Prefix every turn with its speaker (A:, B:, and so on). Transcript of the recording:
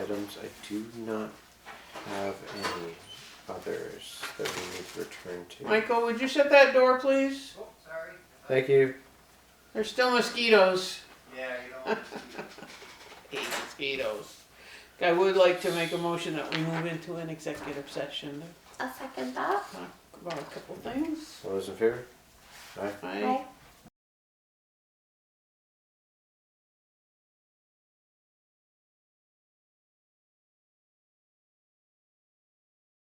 A: items. I do not have any others that we need to return to.
B: Michael, would you shut that door, please?
C: Oh, sorry.
A: Thank you.
B: There's still mosquitoes.
C: Yeah, you don't want to see it.
B: Hate mosquitoes. I would like to make a motion that we move into an executive session
D: I'll second that.
B: to talk about a couple things.
A: All those in favor? Aye.
B: I
D: Aye.